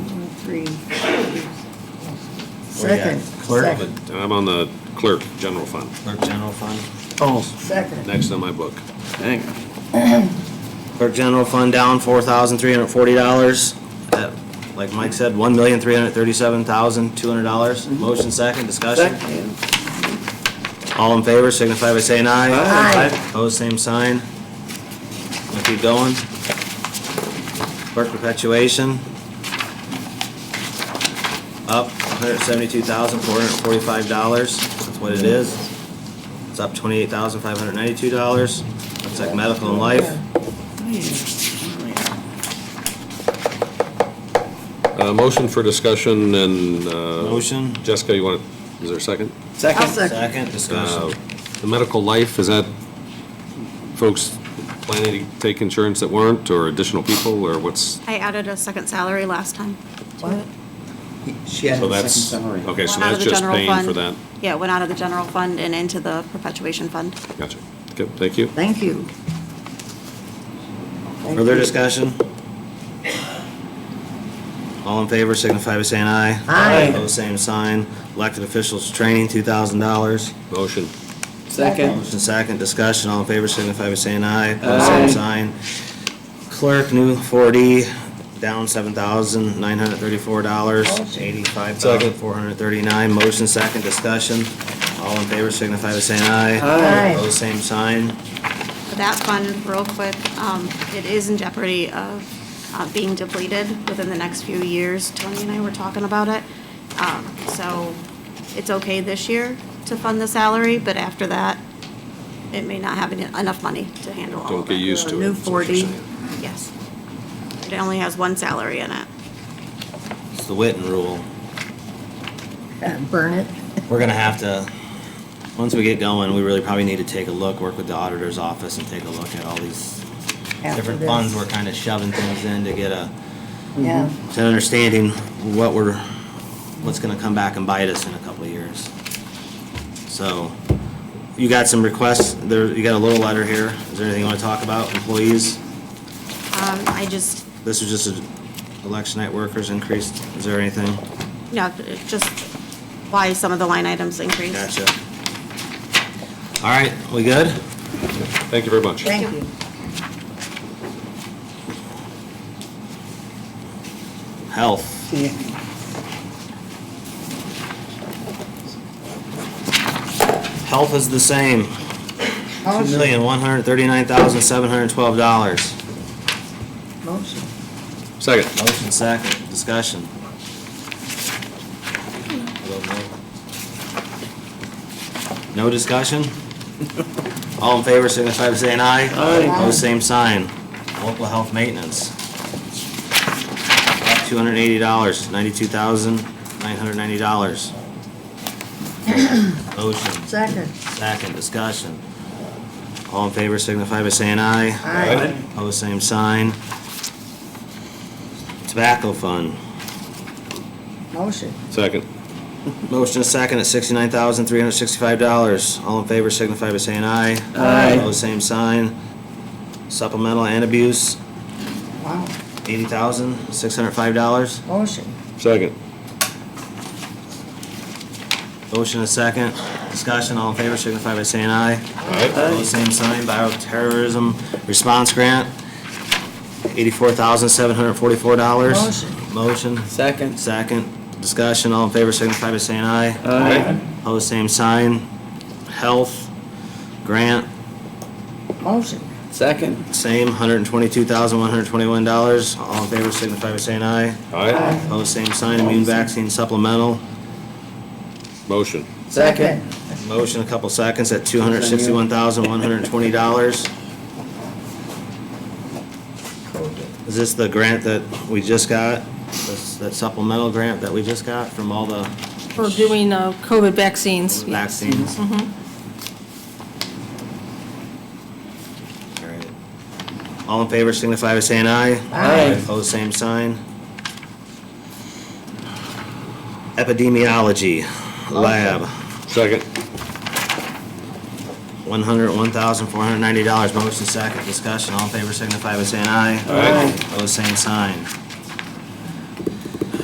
three. We got Second. Oh, Clerk, second, I'm on the clerk, general fund, clerk general fund. Oh, Second. next on my book. dang. Clerk general fund down four thousand three hundred forty dollars. Uh, Like Mike said, one million three hundred thirty-seven thousand two hundred dollars. Motion second, discussion. Second. All in favor, signify by saying aye. Aye. Aye. Opposed, same sign. We'll keep going. Clerk perpetuation. Up $172,445, that's what it is. It's up $28,592. Looks like medical and life. Uh, motion for discussion and, uh, Motion, Jessica, you want, is there a second? I'll Second. second. second, Uh, discussion. The medical life, is that folks planning to take insurance that weren't, or additional people, or what's? I added a second salary last time. What? She had So a second that's summary. Okay, so Went out of that's the just general paying for that. fund. Yeah, it went out of the general fund and into the perpetuation fund. Gotcha. Okay, thank you. Thank you. Thank Further you. discussion? All in favor, signify by saying aye. Aye. Opposed, same sign. Elected officials training, two thousand dollars. Motion. Second. Motion second, discussion, all in favor, signify by saying aye. Opposed, same sign. Clerk, new four D, down seven thousand, nine hundred thirty-four dollars, eighty-five thousand, four hundred thirty-nine. Motion second, discussion, all in favor, signify by saying aye. Aye. Opposed, same sign. But That fund, real quick, um, it is in jeopardy of uh, being depleted within the next few years. Tony and I were talking about it. Um, So it's okay this year to fund the salary, but after that, it may not have en- enough money to handle all Don't of get it. used to it. New is what you're 4D. saying. Yes. It only has one salary in it. It's the Witten rule. Uh, Burn it. We're gonna have to, once we get going, we really probably need to take a look, work with the auditor's office and take a look at all these after different this. funds we're kind of shoving things in to get a, Yeah, to understanding what we're, what's gonna come back and bite us in a couple of years. So, you got some requests, there, you got a little letter here, is there anything you wanna talk about, employees? Um, I just, This is just a election night workers increased, is there anything? no, just why some of the line items increased. Gotcha. All right, we good? Thank you very much. thank you. Health. Yeah. Health is the same, two Motion. million, one hundred thirty-nine thousand, seven hundred twelve dollars. Motion. Second. Motion second, discussion. I don't know. No discussion? All in favor, signify by saying aye. Aye. Pose same sign. Local health maintenance. Two hundred eighty dollars, ninety-two thousand, nine hundred ninety dollars. Motion. Second. Second, discussion. All in favor signify by saying aye. Aye. Opposed, same sign. Tobacco fund. Motion. Second. Motion is second at sixty-nine thousand, three hundred sixty-five dollars. All in favor signify by saying aye. Aye. Opposed, same sign. Supplemental and abuse, Wow. eighty thousand, six hundred five dollars. Motion. Second. Motion is second. Discussion, all in favor signify by saying aye. All right. Opposed, same sign, bioterrorism response grant, eighty-four thousand, seven hundred forty-four dollars. Motion. Motion, Second. second, discussion, all in favor, signify by saying aye. Aye. Opposed, same sign, health, grant, Motion. Second. same, hundred and twenty-two thousand, one hundred twenty-one dollars, all in favor, signify by saying aye. All right. Opposed, same sign, immune vaccine supplemental, Motion. Second. motion a couple seconds at two hundred sixty-one thousand, one hundred twenty dollars. Is this the grant that we just got, This- that supplemental grant that we just got from all the For doing uh, COVID vaccines. yes. vaccines? All right. All in favor signify by saying aye. Aye. Opposed, same sign. Epidemiology Lab, Second. one hundred, one thousand, four hundred ninety dollars, motion second, discussion, all in favor signify by saying aye. Aye. Opposed, same sign.